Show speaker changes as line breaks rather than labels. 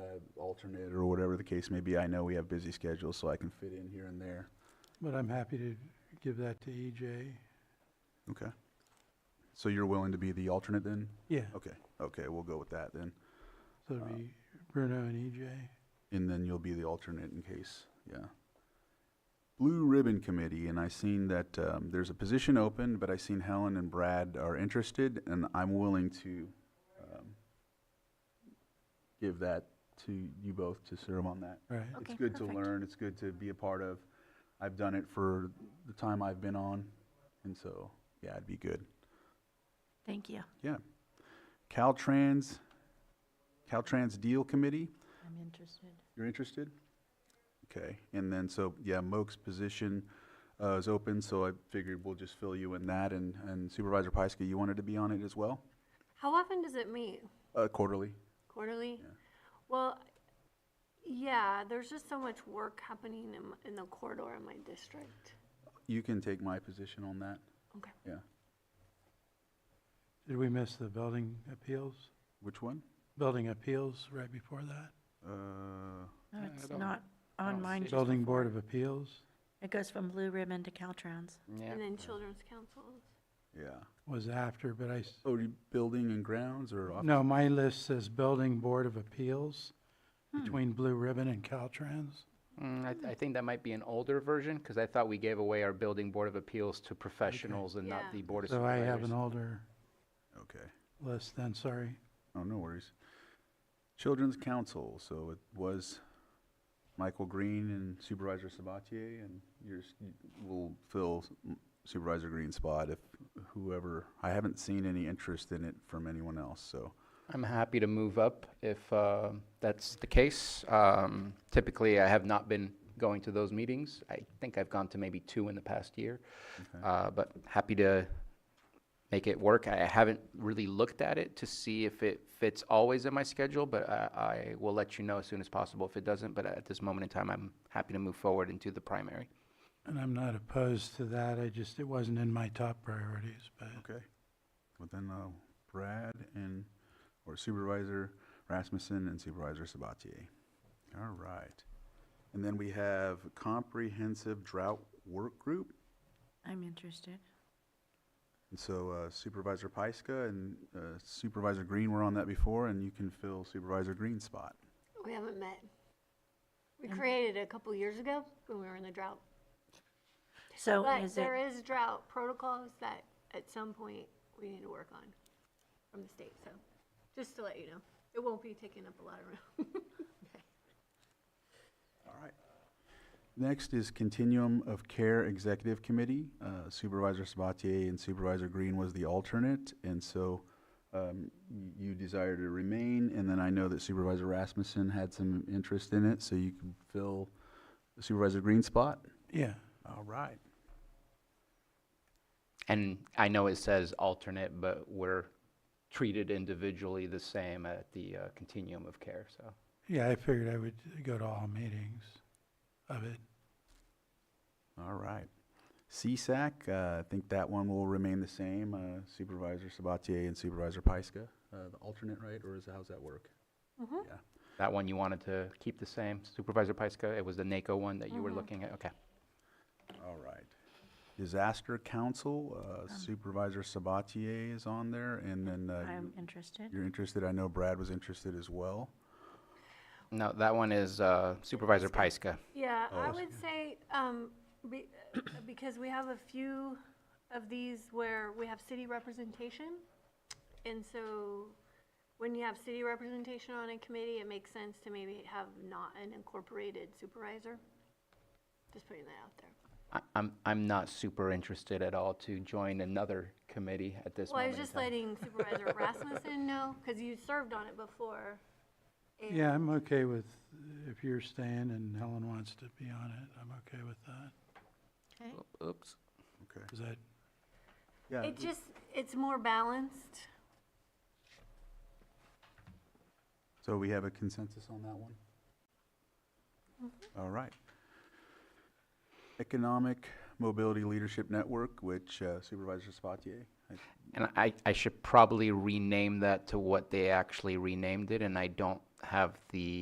uh, alternate or whatever the case may be. I know we have busy schedules, so I can fit in here and there.
But I'm happy to give that to E EJ.
Okay. So you're willing to be the alternate then?
Yeah,
Okay, okay, we'll go with that then.
so it'll be Bruno and E EJ.
And then you'll be the alternate in case, yeah. Blue Ribbon Committee, and I seen that, um, there's a position open, but I seen Helen and Brad are interested, and I'm willing to, um, give that to you both to serve on that.
Right,
It's
Okay,
good to
perfect.
learn, it's good to be a part of. I've done it for the time I've been on, and so, yeah, it'd be good.
Thank you.
Yeah. Caltrans, Caltrans Deal Committee,
I'm interested.
you're interested? Okay, and then, so, yeah, Moak's position uh, is open, so I figured we'll just fill you in that, and and Supervisor Pyska, you wanted to be on it as well?
How often does it meet?
Uh, Quarterly?
Quarterly? Well, yeah, there's just so much work happening in, m- in the corridor in my district.
You can take my position on that,
Okay.
yeah.
did we miss the building appeals?
Which one?
Building appeals right before that?
Uh,
No,
I
it's
don't-
not
I
on
don't
mine.
see it.
Building Board of Appeals?
It goes from Blue Ribbon to Caltrans.
Yeah.
And then children's councils.
Yeah.
was after, but I, s-
Oh, you- building and grounds or? off-
no, my list says Building Board of Appeals between Blue Ribbon and Caltrans.
Mm,
Mm-hmm.
I, I think that might be an older version, because I thought we gave away our building board of appeals to professionals and not
Yeah.
the board of
So I have an
supervisors.
older
Mm-hmm.
Okay.
list then, sorry.
Oh, no worries. Children's Council, so it was Michael Green and Supervisor Sabatier, and yours you will fill Supervisor Green's spot if whoever, I haven't seen any interest in it from anyone else, so.
I'm happy to move up if uh, that's the case. Um, Typically, I have not been going to those meetings. I think I've gone to maybe two in the past year. Uh, But happy to make it work. I I haven't really looked at it to see if it fits always in my schedule, but I I will let you know as soon as possible if it doesn't. But at this moment in time, I'm happy to move forward into the primary.
And I'm not opposed to that, I just, it wasn't in my top priorities, but
Okay. Well, then, uh, Brad and, or Supervisor Rasmussen and Supervisor Sabatier. All right. And then we have Comprehensive Drought Work Group.
I'm interested.
And so uh, Supervisor Pyska and uh, Supervisor Green were on that before, and you can fill Supervisor Green's spot.
We haven't met. We
And-
created it a couple years ago when we were in the drought.
So
But
is it,
there Oh, is drought protocols that at some point we need to work on from the state, so just to let you know. It won't be taking up a lot of room.
All right. Next is Continuum of Care Executive Committee. Uh, Supervisor Sabatier and Supervisor Green was the alternate, and so um, y- you desire to remain, and then I know that Supervisor Rasmussen had some interest in it, so you can fill Supervisor Green's spot.
yeah.
All right.
And I know it says alternate, but we're treated individually the same at the uh, continuum of care, so.
Yeah, I figured I would go to all meetings of it.
All right. CSAC, uh, I think that one will remain the same, uh, Supervisor Sabatier and Supervisor Pyska, uh, the alternate, right, or is, how's that work? Yeah,
That one you wanted to keep the same, Supervisor Pyska, it was the NACO one that
Mm-hmm.
you were looking at, okay.
all right. Disaster Council, uh, Supervisor Sabatier is on there, and then, uh,
I'm
you-
interested.
you're interested, I know Brad was interested as well.
No, that one is uh, Supervisor Pyska.
Yeah,
Oh,
I
that's
would say, um, be, because we have a few of these where we have city representation. And so when you have city representation on a committee, it makes sense to maybe have not an incorporated supervisor. Just putting that out there.
I- I'm, I'm not super interested at all to join another committee at this
Well, I
moment
was
in
just
time.
letting Supervisor Rasmussen know, because you served on it before. and-
Yeah, I'm okay with, if you're staying and Helen wants to be on it, I'm okay with that.
Okay.
Oops.
Okay.
Is that,
Yeah,
It just, it's more balanced.
So we have a consensus on that one? All right. Economic Mobility Leadership Network, which uh, Supervisor Sabatier, I
And I, I should probably rename that to what they actually renamed it, and I don't have the